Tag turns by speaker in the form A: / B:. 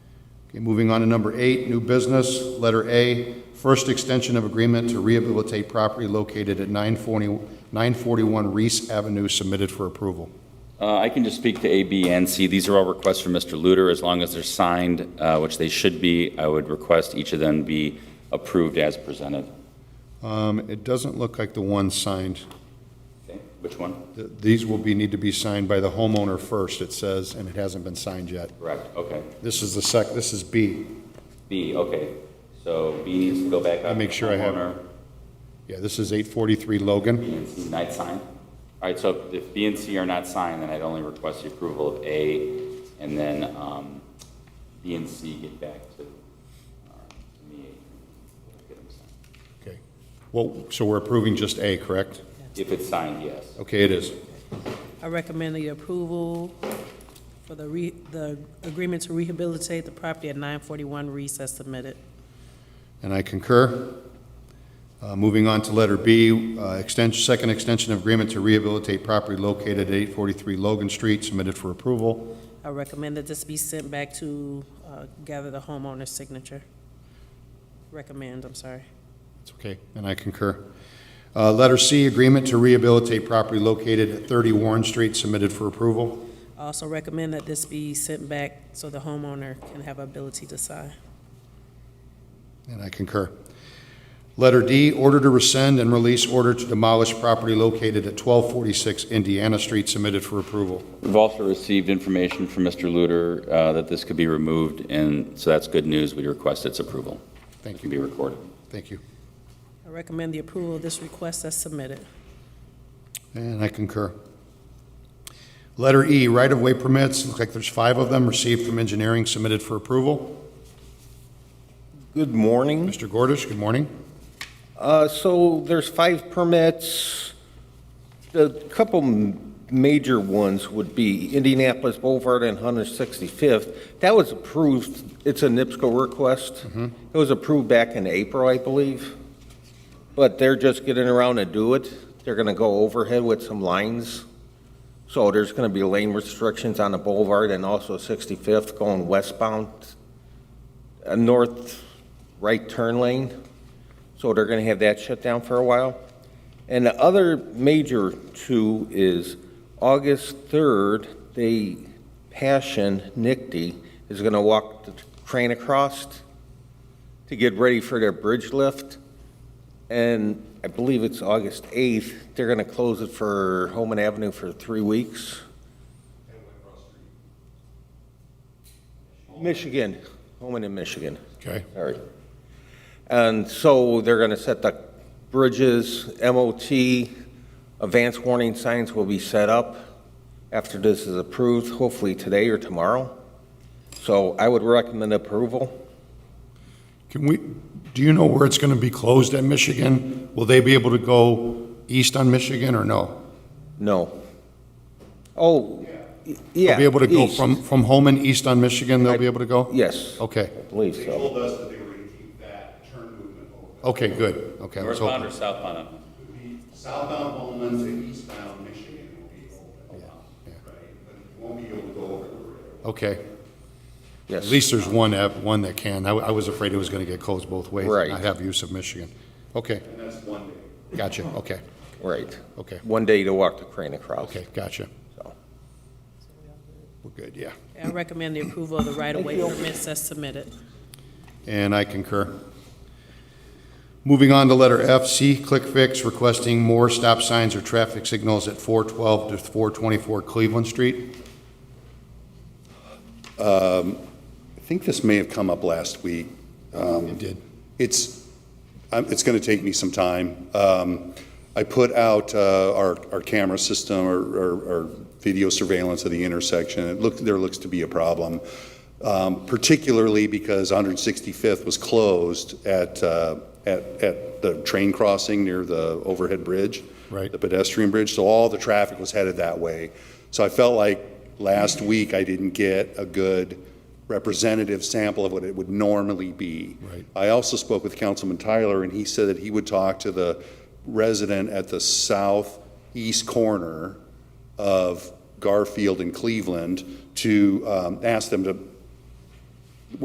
A: Okay, moving on to number eight, new business, letter A, first extension of agreement to rehabilitate property located at 940 941 Reese Avenue submitted for approval.
B: Uh, I can just speak to A, B, and C. These are all requests from Mr. Luter. As long as they're signed, uh, which they should be, I would request each of them be approved as presented.
A: Um, It doesn't look like the one signed.
B: Okay, Which one?
A: Th- These will be, need to be signed by the homeowner first, it says, and it hasn't been signed yet.
B: Correct, okay.
A: This is the sec, this is B.
B: B, okay. So B needs to go back up.
A: I'll make sure I have-
B: Homeowner,
A: Yeah, this is 843 Logan.
B: B and C not signed. All right, so if B and C are not signed, then I'd only request the approval of A, and then um, B and C get back to uh, to me. Get them signed.
A: Okay. Well, so we're approving just A, correct?
B: If it's signed, yes.
A: Okay, it is.
C: I recommend the approval for the re, the agreement to rehabilitate the property at nine forty-one Reese as submitted.
A: And I concur. Uh, Moving on to letter B, uh, extension, second extension of agreement to rehabilitate property located at 843 Logan Street, submitted for approval.
C: I recommend that this be sent back to, uh, gather the homeowner's signature. Recommend, I'm sorry.
A: It's okay, and I concur. Uh, Letter C, agreement to rehabilitate property located at 30 Warren Street, submitted for approval.
C: I also recommend that this be sent back so the homeowner can have ability to sign.
A: And I concur. Letter D, order to rescind and release order to demolish property located at 1246 Indiana Street, submitted for approval.
B: We've also received information from Mr. Luter uh, that this could be removed, and so that's good news. We request its approval. It
A: Thank
B: can be
A: you,
B: recorded.
A: thank you.
C: I recommend the approval of this request as submitted.
A: And I concur. Letter E, right-of-way permits, look like there's five of them received from engineering submitted for approval.
D: Good morning.
A: Mr. Gordish, good morning.
D: Uh, So there's five permits. A couple m- major ones would be Indianapolis Boulevard and 165th. That was approved, it's a NIPSCO request. It was approved back in April, I believe. But they're just getting around to do it. They're going to go overhead with some lines. So there's going to be lane restrictions on the Boulevard and also 65th going westbound, a north right turn lane. So they're going to have that shut down for a while. And the other major two is August 3rd, the Passion Nickty is going to walk the train across to get ready for their bridge lift. And I believe it's August 8th, they're going to close it for Homan Avenue for three weeks. Michigan, Homan in Michigan.
A: Okay.
D: Sorry. And so they're going to set the bridges, MOT, advance warning signs will be set up after this is approved, hopefully today or tomorrow. So I would recommend approval.
A: Can we, do you know where it's going to be closed at Michigan? Will they be able to go east on Michigan or no?
D: No. Oh, y- yeah.
A: They'll be able to go
D: east.
A: from, from Holman east on Michigan, they'll be able to go?
D: Yes, I
A: Okay,
D: believe
E: They
D: so.
E: told us that they were going to keep that turn movement open.
A: okay, good, okay. I was
B: Northbound
A: hoping-
B: or southbound?
E: It would be Southbound Bowman to eastbound Michigan will be open,
A: yeah.
E: right? But you won't be able to go over the rail.
A: Okay,
D: Yes.
A: at least there's one, app- one that can. I, I was afraid it was going to get closed both ways. and
D: Right.
A: Not have use of Michigan. Okay,
E: And that's one day.
A: gotcha, okay,
D: Right.
A: okay,
D: One day to walk the crane across.
A: okay, gotcha.
D: So.
A: We're good, yeah.
C: I recommend the approval of the right-of-way permits as submitted.
A: And I concur. Moving on to letter F, C, Click Fix requesting more stop signs or traffic signals at 412 to 424 Cleveland Street.
E: I think this may have come up last week. Um,
A: It did.
E: It's, I'm- it's going to take me some time. Um, I put out uh, our, our camera system or, or- or video surveillance of the intersection. It looked, there looks to be a problem, um, particularly because 165th was closed at, uh, at, at the train crossing near the overhead bridge.
A: Right.
E: The pedestrian bridge, so all the traffic was headed that way. So I felt like last week I didn't get a good representative sample of what it would normally be.
A: Right.
E: I also spoke with Councilman Tyler, and he said that he would talk to the resident at the southeast corner of Garfield and Cleveland to um, ask them to